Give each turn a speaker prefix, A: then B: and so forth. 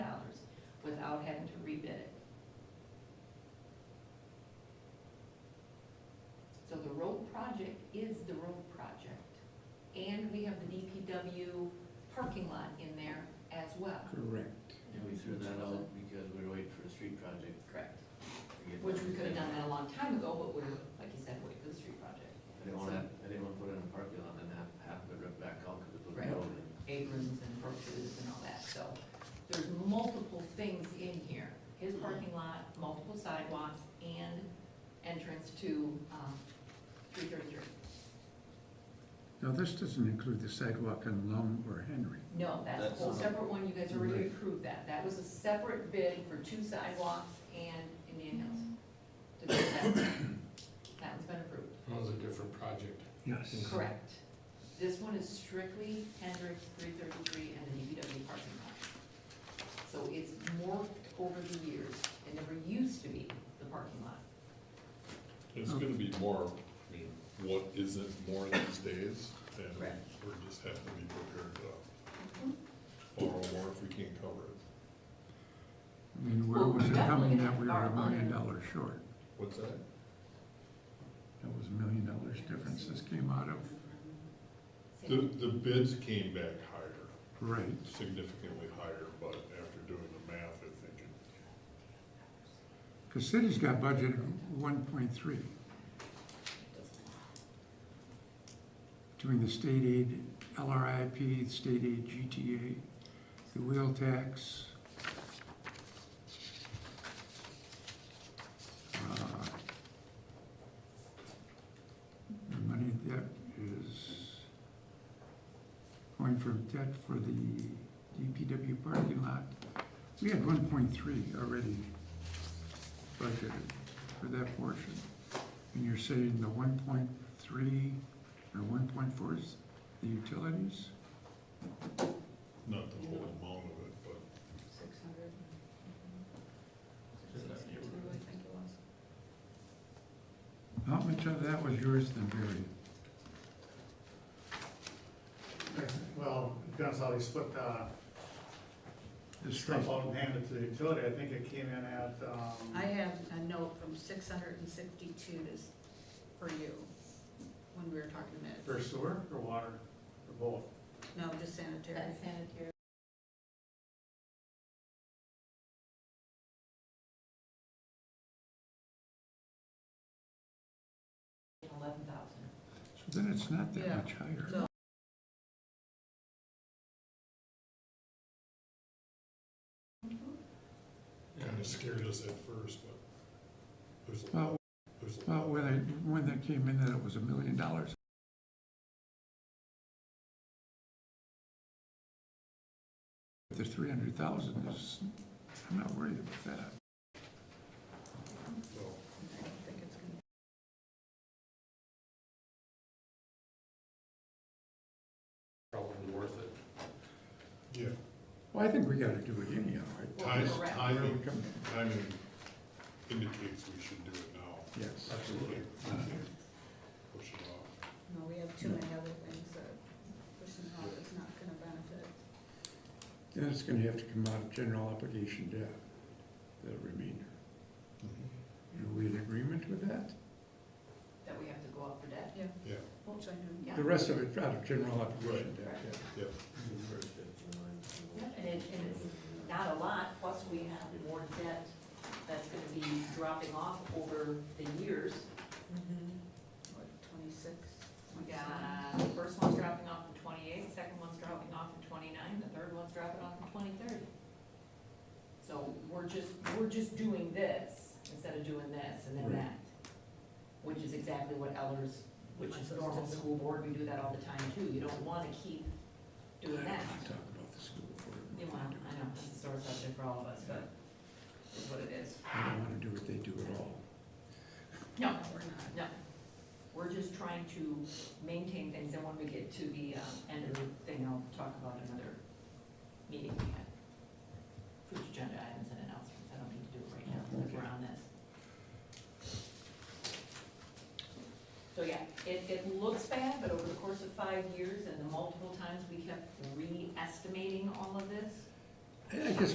A: rebid it. So the road project is the road project. And we have the DPW parking lot in there as well.
B: Correct.
C: And we threw that out because we were waiting for a street project.
A: Correct.
C: to get
A: Which we could have
C: done.
A: done that a long time ago, but we're, like you said, waiting for the street project.
C: I didn't wanna, I didn't wanna put it in a parking lot and have, have it ripped back out because it was
A: Right.
C: rolling.
A: aprons and brooches and all that, so there's multiple things in here. His parking lot, multiple sidewalks, and entrance to, um, three thirty-three.
B: Now, this doesn't include the sidewalk on Lum or Henry.
A: No, that's a whole
C: That's-
A: separate one, you guys already
B: Right.
A: approved that. That was a separate bid for two sidewalks and Indian Hills. To do that. That one's been approved,
D: That was a different project.
B: Yes.
A: correct. This one is strictly Hendricks, three thirty-three, and the DPW parking lot. So it's morphed over the years. It never used to be the parking lot.
E: It's gonna be more, I mean, what isn't more these days, and
A: Right.
E: we're just have to be prepared to borrow more if we can't cover it.
B: I mean, where was it coming that we were a million dollars short?
E: What's that?
B: That was a million dollars difference this came out of.
E: The, the bids came back higher,
B: Right.
E: significantly higher, but after doing the math, I think it,
B: Because city's got budgeted one point three between the state aid, LRIP, state aid GTA, the wheel tax. uh, The money that is going from debt for the DPW parking lot. We had one point three already budgeted for that portion. And you're saying the one point three or one point four is the utilities?
E: not the whole amount of it, but
A: Six hundred.
C: Just that neighborhood.
A: I think it was.
B: How much of that was yours then, Barry?
F: Well, it depends how they split the
B: The
F: stuff
B: straight-
F: out uh, and handed to the utility, I think it came in at,
G: I
F: um,
G: have a note from six hundred and sixty-two to, s- for you, when we were talking about,
F: for sewer or water, or both.
G: no, just sanitary.
A: That's sanitary. Eleven thousand.
B: So then it's not that
G: Yeah.
B: much higher.
G: So-
E: kinda scared us at first, but there's a
B: Well,
E: lot, there's a
B: well,
E: lot.
B: when it, when that came in, that it was a million dollars. The three hundred thousand is, I'm not worried about that.
E: so.
G: I don't think it's gonna-
D: Probably worth it.
E: Yeah,
B: Well, I think we gotta do it anyhow. right?
E: Ties-
A: correct.
B: Where we
E: timing,
B: come in.
E: timing indicates we should do it now.
B: Yes.
E: Absolutely. Push it off.
G: No, we have too many other things that pushing off is not gonna benefit.
B: Then it's gonna have to come out of general obligation debt, the remainder. Are we in agreement with that?
A: That we have to go out for debt?
E: Yeah,
G: Which I know.
A: Yeah.
B: The rest of it out of general obligation debt, yeah.
E: yeah.
A: Yeah, and it, and it's not a lot, plus we have more debt that's gonna be dropping off over the years.
G: What, twenty-six?
A: We got, the first one's dropping off in twenty-eight, the second one's dropping off in twenty-nine, the third one's dropping off in twenty thirty. So we're just, we're just doing this instead of doing this and then
B: Right.
A: that, which is exactly what Ellers, which is normal school board, we do that all the time too. You don't wanna keep
B: I
A: doing
B: don't
A: that.
B: wanna talk about the school board.
A: You know, I know, it's a sore subject for all of us, but it's what it is.
B: I don't wanna do what they do at all.
A: No,
G: We're not.
A: no. We're just trying to maintain things, and when we get to the um, end of the thing, I'll talk about another meeting we had. Future agenda items and announcements, I don't need to do it right now, since we're on this. So yeah, it, it looks bad, but over the course of five years and the multiple times we kept re-estimating all of this,
B: I I guess